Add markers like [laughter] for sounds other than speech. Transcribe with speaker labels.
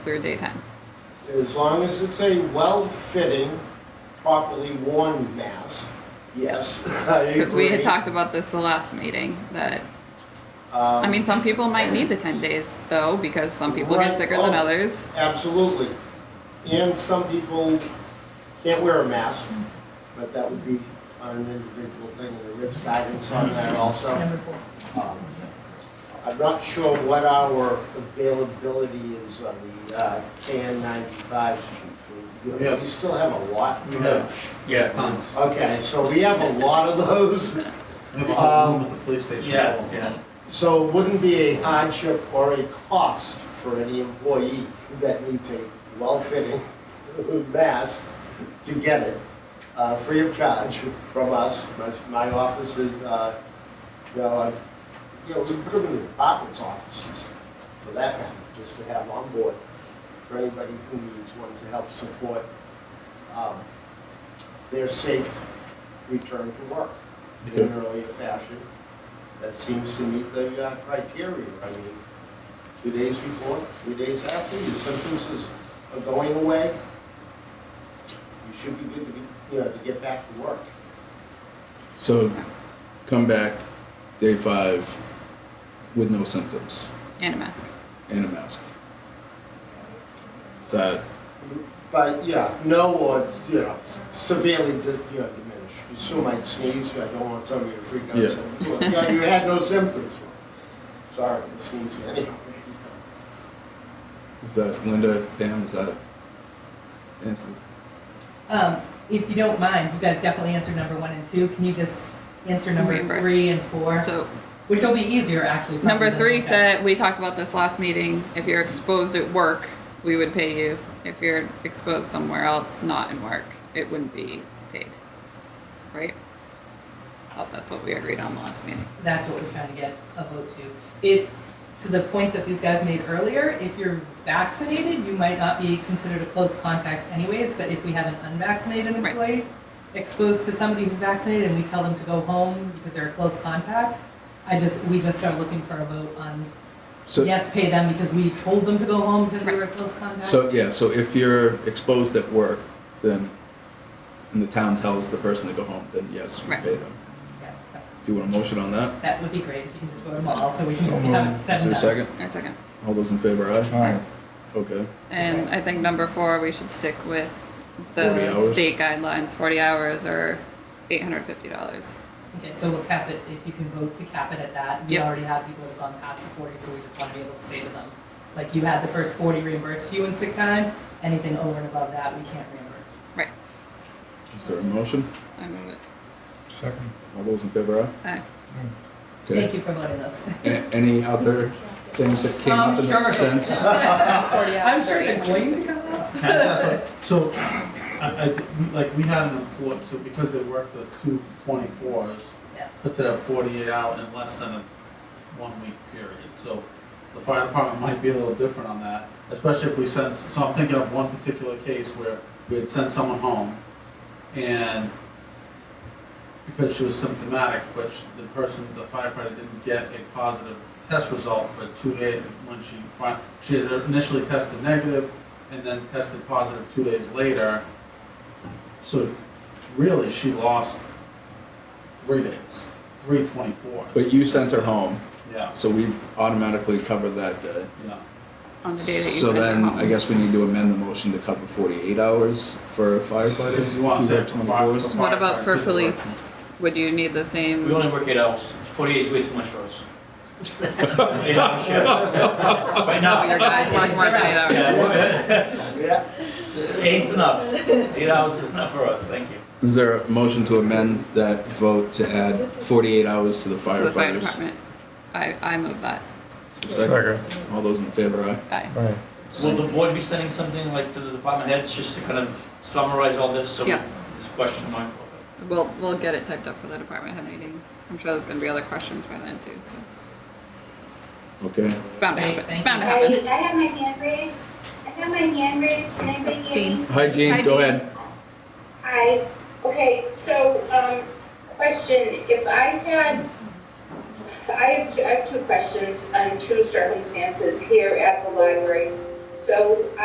Speaker 1: clear daytime.
Speaker 2: As long as it's a well-fitting, properly worn mask, yes, [laughs] I agree.
Speaker 1: Because we had talked about this the last meeting, that, I
Speaker 2: Um,
Speaker 1: mean, some people might need the ten days though, because some people get
Speaker 2: Right,
Speaker 1: sicker than
Speaker 2: oh.
Speaker 1: others.
Speaker 2: Absolutely. And some people can't wear a mask, but that would be on an individual thing, and there is guidance on that also. Um, I'm not sure what our availability is on the uh, KN 95s, chief. We-
Speaker 3: Yeah.
Speaker 2: We still have a lot.
Speaker 3: We have, yeah, tons.
Speaker 2: Okay, so we have a lot of those.
Speaker 3: We have a whole room at the police station.
Speaker 4: Yeah, yeah.
Speaker 2: So it wouldn't be a hardship or a cost for any employee that needs a well-fitting [laughs] mask to get it, uh, free of charge from us, My- my office is, uh, you know, I- you know, we put them in the department's offices for that matter, just to have on board for anybody who needs one to help support um, their safe return to work in an earlier fashion that seems to meet the uh, criteria. I mean, two days before, three days after, your symptoms is, are going away. You should be good to be, you know, to get back to work.
Speaker 5: So come back day five with no symptoms
Speaker 1: And a mask.
Speaker 5: and a mask. Is that
Speaker 2: But, yeah, no, or, you know, severely, di- you know, diminished. You still might sneeze, but I don't want somebody to freak out.
Speaker 5: Yeah.
Speaker 2: saying, "Well, Yeah, you had no symptoms. Sorry, I sneezed anyway.
Speaker 5: is that Linda, Dan, is that Ansley?
Speaker 6: Um, if you don't mind, you guys definitely answered number one and two. Can you just answer number
Speaker 1: Reimburse.
Speaker 6: three and four?
Speaker 1: So,
Speaker 6: Which will be easier, actually. probably,
Speaker 1: number
Speaker 6: than
Speaker 1: three
Speaker 6: the
Speaker 1: said, we talked about this last meeting, if you're exposed at work, we would pay you. If you're exposed somewhere else, not in work, it wouldn't be paid. Right? Oh, That's what we agreed on last meeting.
Speaker 6: test. That's what we're trying to get a vote to. It, to the point that these guys made earlier, if you're vaccinated, you might not be considered a close contact anyways, but if we have an unvaccinated
Speaker 1: Right.
Speaker 6: employee exposed to somebody who's vaccinated and we tell them to go home because they're a close contact, I just, we just are looking for a vote on,
Speaker 5: So
Speaker 6: yes, pay them because we told them to go home because they were a close contact.
Speaker 5: so yeah, so if you're exposed at work, then and the town tells the person to go home, then yes, we
Speaker 1: Right.
Speaker 5: pay them.
Speaker 6: Yeah, so
Speaker 5: Do you want a motion on that?
Speaker 6: That would be great if you can just vote them all, so we can just have it
Speaker 5: Is
Speaker 6: set
Speaker 5: there a
Speaker 6: and done.
Speaker 5: second?
Speaker 1: A second.
Speaker 5: All those in favor, aye?
Speaker 4: Aye.
Speaker 5: Okay.
Speaker 1: And I think number four, we should stick with
Speaker 5: 40
Speaker 1: the
Speaker 5: hours.
Speaker 1: state guidelines, forty hours or eight hundred fifty dollars.
Speaker 6: Okay, so we'll cap it, if you can vote to cap it at that. We
Speaker 1: Yep.
Speaker 6: already have people who've gone past the forty, so we just wanna be able to say to them, like, you had the first forty reimbursed to you in sick time, anything over and above that, we can't reimburse.
Speaker 1: Right,
Speaker 5: Is there a motion?
Speaker 1: I move it.
Speaker 4: Second.
Speaker 5: All those in favor, aye?
Speaker 1: Aye.
Speaker 6: Thank you for voting this.
Speaker 5: A- any other things that came
Speaker 6: I'm
Speaker 5: up that
Speaker 6: sure.
Speaker 5: make
Speaker 6: [laughs]
Speaker 5: sense?
Speaker 6: I'm sure they're going to come up.
Speaker 3: [laughs] So, I, I, think, like, we had an employee, so because they worked the two twenty-fours,
Speaker 6: Yeah.
Speaker 3: put that forty-eight out in less than a one-week period. So the fire department might be a little different on that, especially if we send, so I'm thinking of one particular case where we had sent someone home and because she was symptomatic, but she- the person, the firefighter didn't get a positive test result for two days when she fin, she had initially tested negative and then tested positive two days later. So really, she lost three days, three twenty-four.
Speaker 5: But you sent her home,
Speaker 3: Yeah,
Speaker 5: so we automatically covered that day.
Speaker 3: yeah.
Speaker 1: On the day that you
Speaker 5: So
Speaker 1: sent it
Speaker 5: then,
Speaker 1: home.
Speaker 5: I guess we need to amend the motion to cover forty-eight hours for firefighters.
Speaker 3: You want to say
Speaker 5: Who
Speaker 3: for
Speaker 5: work
Speaker 3: fire-
Speaker 5: 24s?
Speaker 1: What about for
Speaker 3: Firefighters.
Speaker 1: police? Would you need the
Speaker 4: We
Speaker 1: same,
Speaker 4: only work eight hours. Forty eight is way too much for us. Eight hour shifts. Right
Speaker 1: oh,
Speaker 4: now.
Speaker 1: your guys work more than eight hours?
Speaker 4: Yeah,
Speaker 2: [laughs] Yeah,
Speaker 4: Eight's enough. Eight hours is enough for us, thank you.
Speaker 5: Is there a motion to amend that vote to add forty-eight hours to the
Speaker 1: To the fire
Speaker 5: firefighters?
Speaker 1: department? I, I move that.
Speaker 5: Is there a Second. All those in favor, aye?
Speaker 1: Aye.
Speaker 4: Will the board be sending something like to the department heads just to kind of summarize all this? so we-
Speaker 1: Yes.
Speaker 4: This question mark.
Speaker 1: We'll, we'll get it typed up for the department head meeting. I'm sure there's gonna be other questions by then too, so
Speaker 5: Okay,
Speaker 1: it's bound to
Speaker 6: Great,
Speaker 1: happen. It's
Speaker 6: thank
Speaker 1: bound to
Speaker 7: I,
Speaker 1: happen.
Speaker 7: I have my hand raised. I have my hand raised. Can anybody hear me?
Speaker 5: hi
Speaker 1: Hi,
Speaker 5: Jean, go
Speaker 1: Jean.
Speaker 5: ahead.
Speaker 7: Hi. Okay, so, um, question, if I had, I have, two- I have two questions on two circumstances here at the library. So So